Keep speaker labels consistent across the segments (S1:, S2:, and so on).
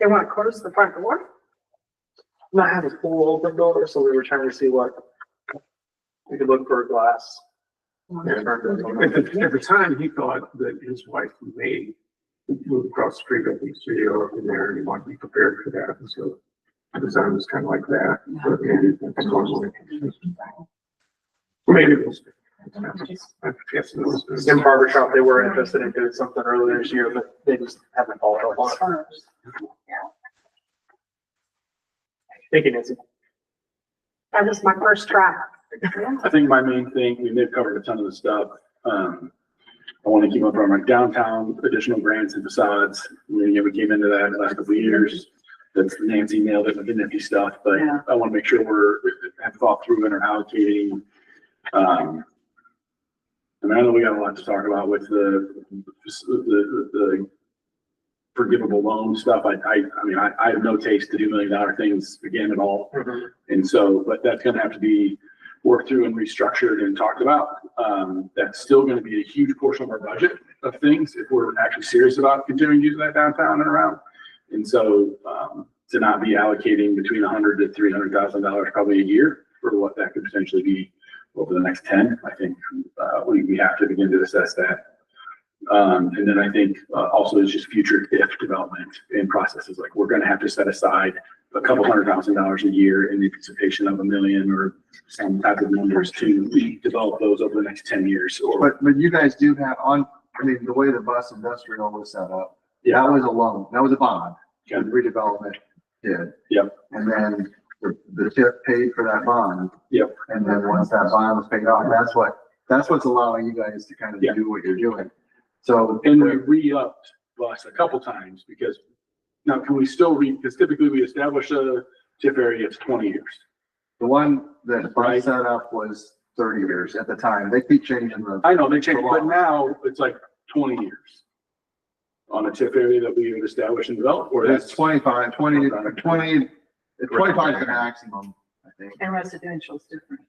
S1: They want to close the front door?
S2: Not have a full open door, so we were trying to see what. We could look for a glass.
S3: At the time, he thought that his wife may move across the street of the studio in there and he wanted to be prepared for that. And so the design was kind of like that. but maybe that's normally- Maybe it was. I guess it was.
S2: In barber shop, they were interested in doing something earlier this year, but they just haven't followed up on it. Thinking it's,
S1: That was my first try.
S4: I think my main thing, we may have covered a ton of the stuff. Um, I want to keep up on my downtown additional grants and facades. I mean, yeah, we came into that in the last couple of years. That's Nancy nailed it with the nifty stuff, but
S5: Yeah.
S4: I want to make sure we're, have thought through and are allocating. Um, and I know we got a lot to talk about with the, the, the forgivable loan stuff. I, I, I mean, I, I have no taste to do million dollar things again at all.
S2: mm-hmm,
S4: And so, but that's gonna have to be worked through and restructured and talked about. Um, that's still gonna be a huge portion of our budget of things if we're actually serious about continuing using that downtown and around. And so, um, to not be allocating between a hundred to three hundred thousand dollars probably a year for what that could potentially be over the next ten, I think, uh, we, we have to begin to assess that. Um, and then I think, uh, also is just future if development and processes, like we're gonna have to set aside a couple hundred thousand dollars a year in anticipation of a million or some type of numbers to develop those over the next ten years or.
S6: But, but you guys do have on, I mean, the way the bus industrial was set up, that was a loan, that was a bond,
S4: Yeah.
S6: that redevelopment did.
S4: Yep.
S6: And then the, the TIF paid for that bond.
S4: Yep.
S6: And then once that bond was paid off, that's what, that's what's allowing you guys to kind of
S4: Yeah.
S6: do what you're doing. So.
S4: And we re-upped bus a couple times because now can we still re, because typically we establish a TIF area, it's twenty years.
S6: The one that I
S4: Right.
S6: set up was thirty years at the time. They keep changing the,
S4: I know they changed, but now it's like twenty years on a TIF area that we had established and developed, or
S6: it's
S4: that's.
S6: twenty-five, twenty, twenty, twenty-five is the maximum, I think.
S5: And residential is different.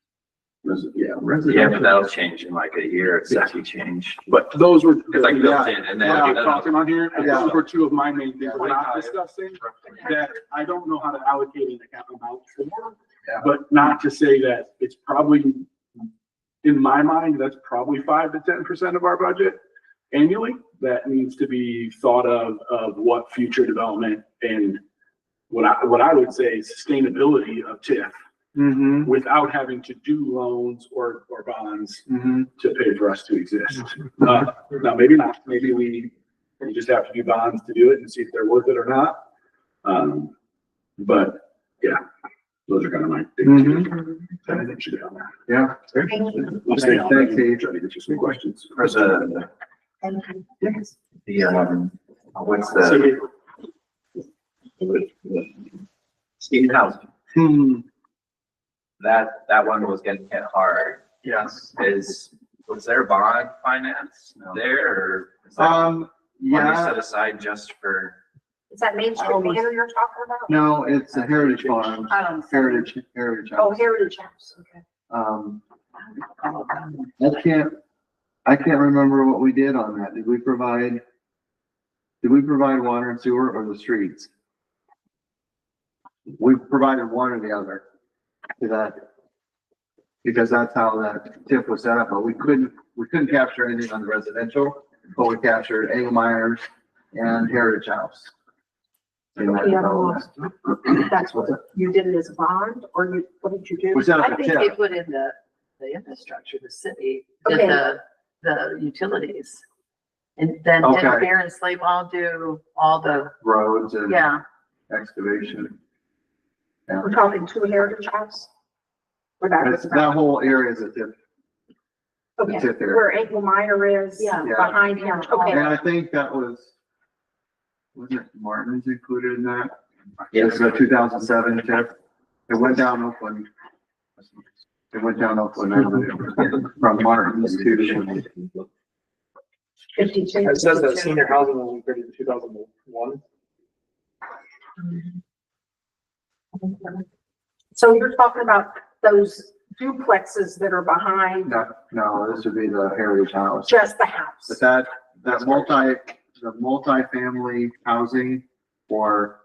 S4: Yeah.
S7: Yeah, but
S4: residential.
S7: that'll change in like a year, it's actually changed.
S4: But those were.
S7: It's like built in and
S4: We're not
S7: then.
S4: talking on here, but
S6: Yeah.
S4: those were two of my main things
S6: Yeah.
S4: we're not discussing, that I don't know how to allocate an account amount for.
S6: Yeah.
S4: But not to say that it's probably, in my mind, that's probably five to ten percent of our budget annually. That needs to be thought of, of what future development and what I, what I would say is sustainability of TIF
S6: Mm-hmm,
S4: without having to do loans or, or bonds
S6: mm-hmm.
S4: to pay for us to exist. Uh, now, maybe not, maybe we, we just have to do bonds to do it and see if they're worth it or not. Um, but, yeah, those are kind of my big two. that I think should be on there.
S6: Yeah.
S1: Thank you.
S4: We'll stay on
S6: Thanks,
S4: that,
S6: Steve.
S4: try to get you some questions.
S7: For the,
S1: Thank you.
S7: the, um, what's
S4: So,
S7: the? Steve House,
S6: Hmm,
S7: that, that one was getting hit hard.
S6: yes.
S7: Is, was there bond finance there or? is that
S6: Um,
S7: Money
S6: yeah,
S7: set aside just for,
S1: Is that Main Street Manor you're talking about?
S6: no, it's a heritage farm,
S5: Um,
S6: heritage, heritage
S1: Oh,
S6: house.
S1: Heritage House, okay.
S6: Um, I can't, I can't remember what we did on that. Did we provide? Did we provide water and sewer or the streets? We provided one or the other to that. Because that's how that tip was set up, but we couldn't, we couldn't capture anything on the residential, but we captured Angle Myers and Heritage House. In that
S1: The other
S6: development.
S1: one, that's what, you did it as a bond, or you, what did you do?
S6: We set up
S5: I
S6: a
S5: think they
S6: tip.
S5: put in the, the infrastructure, the city, did
S1: Okay.
S5: the, the utilities. And then didn't
S6: Okay.
S5: Baron Slave all do all the,
S6: roads and
S5: yeah,
S6: excavation.
S1: We're talking two Heritage House? Or that
S6: That's,
S1: was
S6: that
S1: about,
S6: whole area is a tip.
S1: okay,
S6: That's it there.
S1: where Ankle Miner is,
S5: Yeah.
S6: Yeah.
S1: behind him, okay.
S6: And I think that was, was it Martin's included in that? It
S7: yes,
S6: was a two thousand seven tip. It went down Oakland. It went down Oakland Avenue from Martin's to,
S1: Fifty-two.
S2: it says that senior housing was created in two thousand one.
S1: So you're talking about those duplexes that are behind
S6: no, no, this would be the Heritage House.
S1: just the house?
S6: But that, that multi, the multifamily housing for